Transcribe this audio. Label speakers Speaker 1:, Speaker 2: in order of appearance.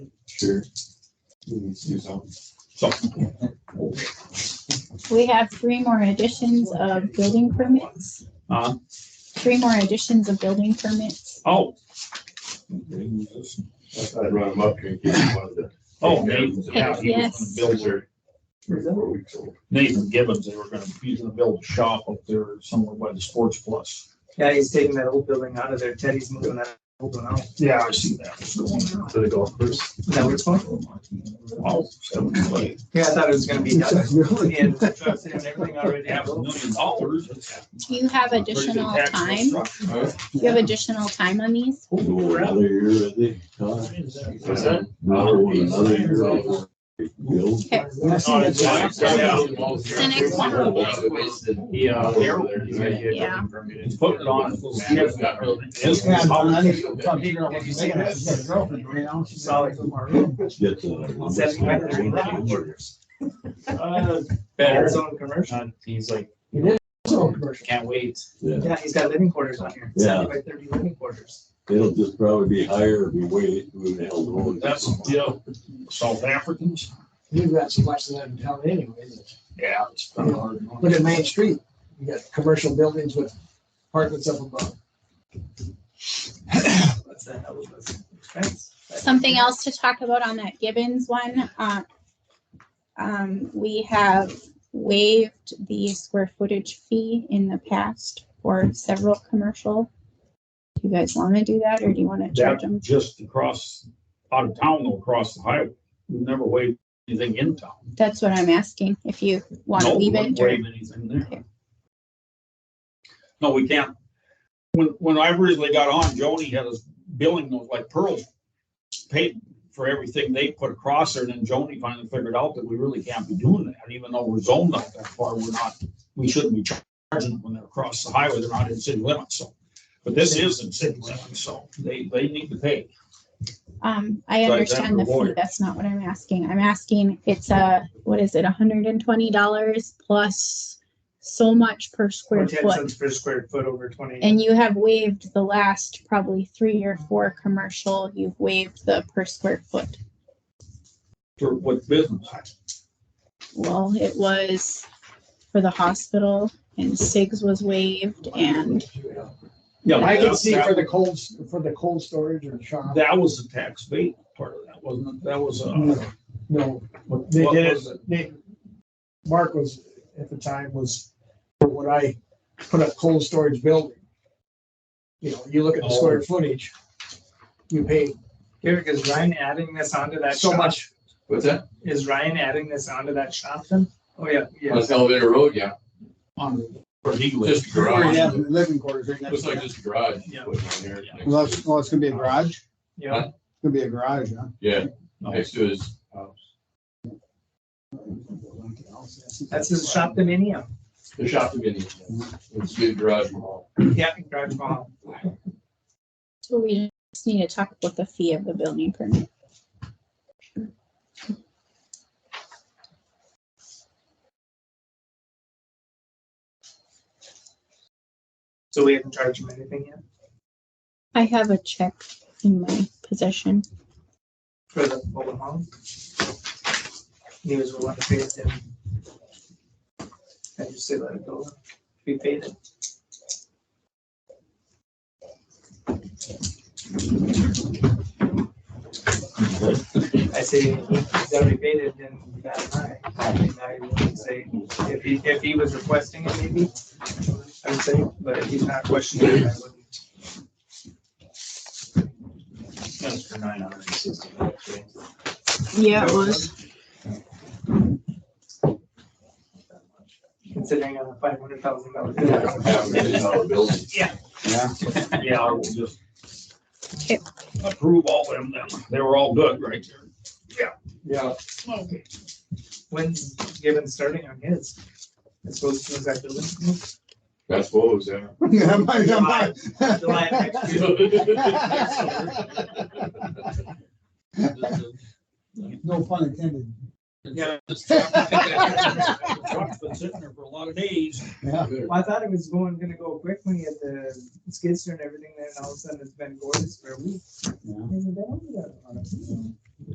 Speaker 1: Sure. We need to do something.
Speaker 2: We have three more additions of building permits,
Speaker 3: Huh?
Speaker 2: three more additions of building permits.
Speaker 3: Oh,
Speaker 1: That's why I brought him up here. and gave him one of the-
Speaker 3: oh, Nathan's, yeah, he was
Speaker 2: Yes.
Speaker 3: gonna build their,
Speaker 1: Three, or four weeks old.
Speaker 3: Nathan Gibbons, they were gonna, he's gonna build a shop up there somewhere by the Sports Plus.
Speaker 4: Yeah, he's taking that old building out of there. Teddy's moving that old one out.
Speaker 3: Yeah, I see that. It's going there.
Speaker 5: to the golf course.
Speaker 4: Is that where it's going?
Speaker 3: Oh, seven play.
Speaker 4: Yeah, I thought it was gonna be done.
Speaker 5: Really?
Speaker 4: And trucks and everything already
Speaker 3: Half a
Speaker 4: happened.
Speaker 3: million dollars. It's
Speaker 2: Do you have
Speaker 3: a pretty good
Speaker 2: additional
Speaker 3: taxable
Speaker 2: time?
Speaker 3: structure.
Speaker 2: Do you have additional time on these?
Speaker 3: Oh, yeah.
Speaker 6: Another year, I think. huh?
Speaker 5: What's that?
Speaker 6: Another one, another year. I'll build.
Speaker 2: Okay,
Speaker 3: Oh, it's fine. Yeah.
Speaker 2: the next one.
Speaker 5: Yeah.
Speaker 2: Yeah.
Speaker 3: He's putting it on.
Speaker 5: Skip's got her.
Speaker 3: It's gonna be-
Speaker 4: Solid.
Speaker 6: Get the.
Speaker 4: Says you better than
Speaker 3: Uh,
Speaker 4: Got
Speaker 3: Better.
Speaker 4: his own commercial.
Speaker 5: Uh, He's like,
Speaker 4: Commercial.
Speaker 5: can't wait.
Speaker 6: Yeah,
Speaker 4: Yeah, he's got living quarters on here.
Speaker 6: Yeah.
Speaker 4: Seventy by thirty living quarters.
Speaker 6: it'll just probably be higher if we wait, we would held on.
Speaker 3: That's, you know, South Africans.
Speaker 7: You've got so much of that in town anyways.
Speaker 3: Yeah. it's kind of hard.
Speaker 7: Look at Main Street. You got commercial buildings with apartments up above.
Speaker 4: What's that? That was- that's expense.
Speaker 2: Something else to talk about on that Gibbons one, uh, um, we have waived the square footage fee in the past for several commercial. Do you guys want to do that or do you want to charge
Speaker 3: That
Speaker 2: them?
Speaker 3: just across, out of town, though, across the highway. We Never wave anything in town.
Speaker 2: That's what I'm asking, if you want to
Speaker 3: No,
Speaker 2: leave
Speaker 3: wouldn't
Speaker 2: it or
Speaker 3: waive anything there.
Speaker 2: Okay.
Speaker 3: No, we can't. When, when I originally got on, Joni had us billing those like pearls, paid for everything they put across there, and then Joni finally figured out that we really can't be doing that, even though we're zoned out that far, we're not, we shouldn't be charging them when they're across the highway, they're not in city limits, so. But this is in city limits, so they, they need to pay.
Speaker 2: Um, I
Speaker 3: Right, that
Speaker 2: understand the fee,
Speaker 3: reward.
Speaker 2: that's not what I'm asking. I'm asking, it's a, what is it, hundred and twenty dollars plus so much per
Speaker 4: Or
Speaker 2: square
Speaker 4: ten
Speaker 2: foot.
Speaker 4: cents per square foot over twenty.
Speaker 2: And you have waived the last probably three or four commercial, you've waived the per square foot.
Speaker 3: For what business?
Speaker 2: Well, it was for the hospital and SIGs was waived and
Speaker 3: Yeah,
Speaker 7: I
Speaker 3: that-
Speaker 7: can see
Speaker 3: that-
Speaker 7: for the cold, for the cold storage or shop,
Speaker 3: That was the tax bait part of that, wasn't it? That was, uh.
Speaker 7: no,
Speaker 3: What
Speaker 7: Mm. they
Speaker 3: what
Speaker 7: did
Speaker 3: was it?
Speaker 7: it, they, Mark was, at the time was, when I put up cold storage building. You know, you look at the square footage, you pay
Speaker 4: Here, is Ryan adding this onto that
Speaker 7: so
Speaker 4: shop?
Speaker 7: much,
Speaker 5: What's that?
Speaker 4: Is Ryan adding this onto that shop then? Oh, yeah, yeah.
Speaker 5: That's elevator road, yeah.
Speaker 3: on where he lives.
Speaker 5: Just a garage.
Speaker 8: Yeah, the living quarters right next
Speaker 5: Looks
Speaker 8: to
Speaker 5: like
Speaker 8: it.
Speaker 5: just a garage.
Speaker 4: Yeah.
Speaker 5: Put it on there.
Speaker 8: Well, that's, well, it's gonna be a garage, it's
Speaker 4: Yeah.
Speaker 8: gonna be a garage, huh?
Speaker 5: Yeah, next to his house.
Speaker 4: That's his shop dominium.
Speaker 5: The shop convenience. It's a big garage mall.
Speaker 4: Yeah, garage mall.
Speaker 2: so we just need to talk about the fee of the building permit.
Speaker 4: So we haven't charged him anything yet
Speaker 2: I have a check in my possession.
Speaker 4: for the full amount. He was willing to pay it then. I just say let it go. We paid it. I say, he's already paid it, then that's mine. I would say, if he, if he was requesting it, maybe, I would say, but if he's not questioning it, I wouldn't.
Speaker 5: That's for nine hundred and sixty bucks.
Speaker 2: Yeah, it was.
Speaker 4: considering a five hundred thousand dollar.
Speaker 5: Half a million dollar building.
Speaker 3: Yeah, we'll just
Speaker 2: Okay.
Speaker 3: approve all them then. They were all good right there.
Speaker 7: yeah,
Speaker 4: When's given starting on his? It's supposed to, is that building?
Speaker 5: That's what was there.
Speaker 8: Yeah, my- my-
Speaker 4: July of next year.
Speaker 8: No pun intended.
Speaker 4: Yeah.
Speaker 3: Truck's been sitting there for a lot of days.
Speaker 8: Yeah.
Speaker 4: Well, I thought it was going, gonna go quick when you had the skid steer and everything there, and all of a sudden it's been gorgeous for a week.
Speaker 8: Yeah.
Speaker 4: Hasn't been over that long.